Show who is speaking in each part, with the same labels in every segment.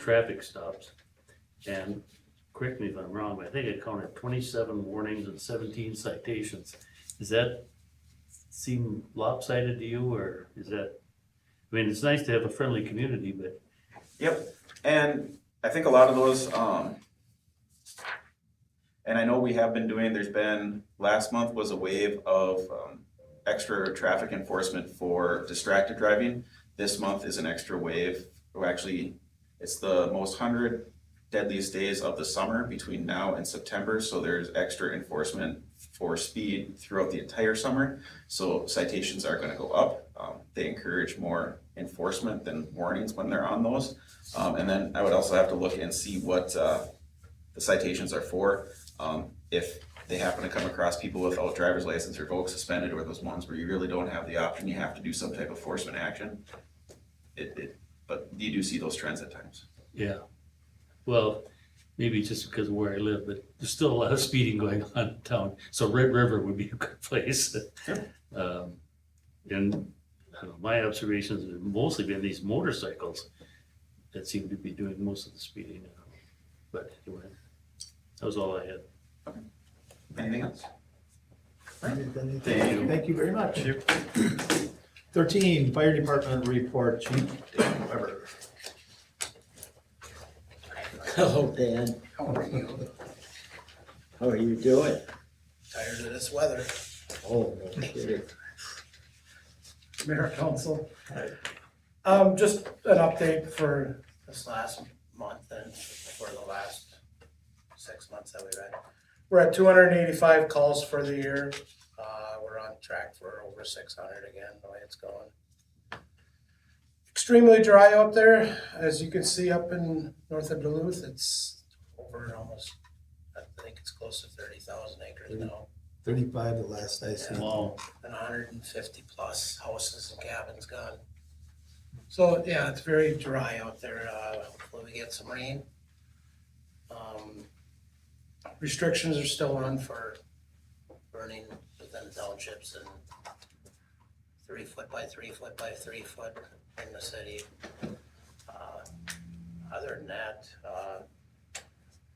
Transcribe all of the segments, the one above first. Speaker 1: traffic stops. And correct me if I'm wrong, but I think I counted twenty-seven warnings and seventeen citations. Does that seem lopsided to you or is that? I mean, it's nice to have a friendly community, but
Speaker 2: And I think a lot of those, um, and I know we have been doing, there's been, last month was a wave of, um, extra traffic enforcement for distracted driving. This month is an extra wave, or actually, it's the most hundred deadliest days of the summer between now and September, so there's extra enforcement for speed throughout the entire summer. So citations are gonna go up. Um, they encourage more enforcement than warnings when they're on those. Um, and then I would also have to look and see what, uh, the citations are for. Um, if they happen to come across people without driver's license revoked, suspended, or those ones where you really don't have the option, you have to do some type of enforcement action. It, it, but you do see those trends at times.
Speaker 1: yeah. Well, maybe it's just because of where I live, but there's still a lot of speeding going on in town. So Red River would be a good place.
Speaker 2: Sure.
Speaker 1: Um, And I don't know, my observations have mostly been these motorcycles that seem to be doing most of the speeding. now. But anyway, that was all I had.
Speaker 2: Anything else? Thank you.
Speaker 3: Thank you very much. Thirteen, Fire Department Report, Chief Dave Weber.
Speaker 4: Hello, Dan.
Speaker 5: How are you?
Speaker 4: How are you doing?
Speaker 5: Tired of this weather.
Speaker 4: Oh, no kidding.
Speaker 5: Mayor, council. Um, just an update for this last month and for the last six months that we've had. We're at two hundred and eighty-five calls for the year. Uh, we're on track for over six hundred again, the way it's going. Extremely dry out there. As you can see up in north of Duluth, it's over almost, I think it's close to thirty thousand acres now.
Speaker 3: Thirty-five, the last I
Speaker 5: Yeah.
Speaker 3: seen.
Speaker 1: Wow,
Speaker 5: than hundred and fifty plus houses and cabins gone. So, yeah, it's very dry out there, uh, hopefully we get some rain. Um, Restrictions are still on for burning within townships and three foot by three foot by three foot in the city. Uh, Other than that, uh,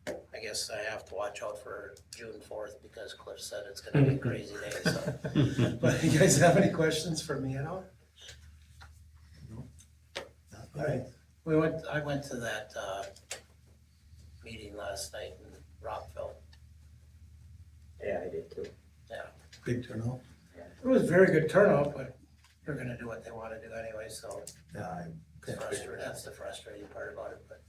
Speaker 5: I guess I have to watch out for June fourth because Cliff said it's gonna be a crazy day, so. But you guys have any questions for me at all?
Speaker 3: Alright,
Speaker 5: We went, I went to that, uh, meeting last night in Rockville.
Speaker 4: Yeah, I did too.
Speaker 3: Big turnout.
Speaker 5: It was a very good turnout, but they're gonna do what they wanna do anyway, so
Speaker 3: Yeah, I
Speaker 5: it's
Speaker 3: can't figure it
Speaker 5: frustrating,
Speaker 3: out.
Speaker 5: that's the frustrating part about it, but,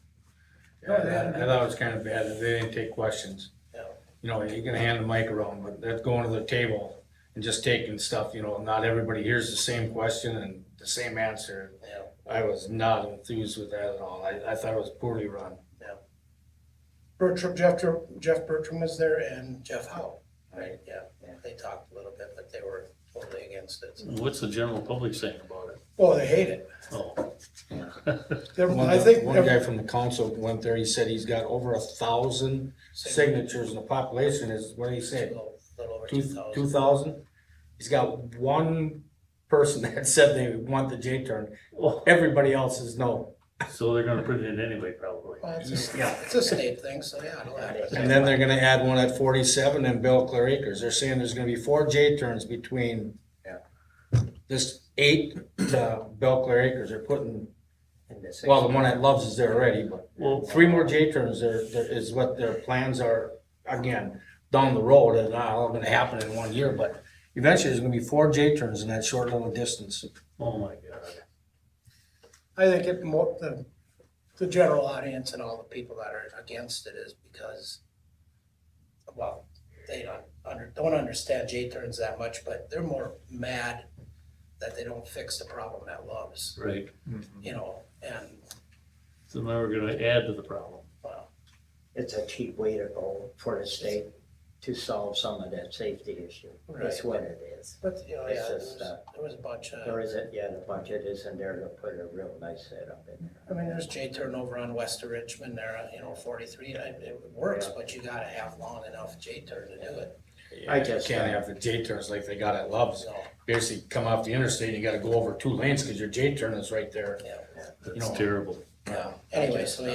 Speaker 6: Yeah, I I thought it was kind of bad that they didn't take questions.
Speaker 5: Yeah.
Speaker 6: You know, you can hand the mic around, but that's going to the table and just taking stuff, you know, not everybody hears the same question and the same answer.
Speaker 5: you know,
Speaker 6: I was not enthused with that at all. I, I thought it was poorly run.
Speaker 5: Bertram, Jeff, Jeff Bertram was there and Jeff Howe, right, yeah,
Speaker 4: Yeah.
Speaker 5: they talked a little bit, but they were totally against it.
Speaker 1: what's the general public saying about it?
Speaker 5: Well, they hate it.
Speaker 1: Oh,
Speaker 5: They're-
Speaker 6: One
Speaker 5: I
Speaker 6: guy-
Speaker 5: think,
Speaker 6: One guy from the council went there, he said he's got over a thousand signatures and the population is, what did he say?
Speaker 5: Little little over two
Speaker 6: Two,
Speaker 5: thousand.
Speaker 6: two thousand? He's got one person that said they want the J turn.
Speaker 1: Oh,
Speaker 6: Everybody else is no.
Speaker 1: so they're gonna put it in anyway, probably.
Speaker 5: Well, it's
Speaker 6: Yeah.
Speaker 5: a, it's a state thing, so yeah, it'll happen.
Speaker 6: And then they're gonna add one at forty-seven and Bell Clear Acres. They're saying there's gonna be four J turns between
Speaker 4: Yeah.
Speaker 6: this eight to Bell Clear Acres. They're putting,
Speaker 4: In the six-
Speaker 6: well, the one at Loves is there already, but
Speaker 1: Well,
Speaker 6: three more J turns there, there is what their plans are, again, down the road. It's not all gonna happen in one year, but eventually there's gonna be four J turns in that short little distance.
Speaker 1: oh my God.
Speaker 5: I think it more, the, the general audience and all the people that are against it is because, well, they don't under, don't understand J-turns that much, but they're more mad that they don't fix the problem at Love's,
Speaker 1: Right,
Speaker 5: you know, and,
Speaker 1: so now we're gonna add to the problem.
Speaker 5: well,
Speaker 4: It's a cheap way to go for the state to solve some of that safety issue. That's
Speaker 5: Right.
Speaker 4: what it is.
Speaker 5: but, you know,
Speaker 4: It's
Speaker 5: yeah, there
Speaker 4: just,
Speaker 5: was,
Speaker 4: uh,
Speaker 5: there was a bunch of,
Speaker 4: There isn't, yeah, the budget isn't there to put a real nice setup in there.
Speaker 5: I mean, there's J-turn over on west of Richmond there, you know, forty-three, and it it works,
Speaker 4: Yeah.
Speaker 5: but you gotta have long enough J-turn to do it,
Speaker 4: I guess
Speaker 6: Can't
Speaker 4: that-
Speaker 6: have the J turns like they got at Loves.
Speaker 5: so,
Speaker 6: Basically, come off the interstate, you gotta go over two lanes, cause your J turn is right there.
Speaker 5: yeah.
Speaker 1: That's terrible.
Speaker 5: Yeah, anyway, so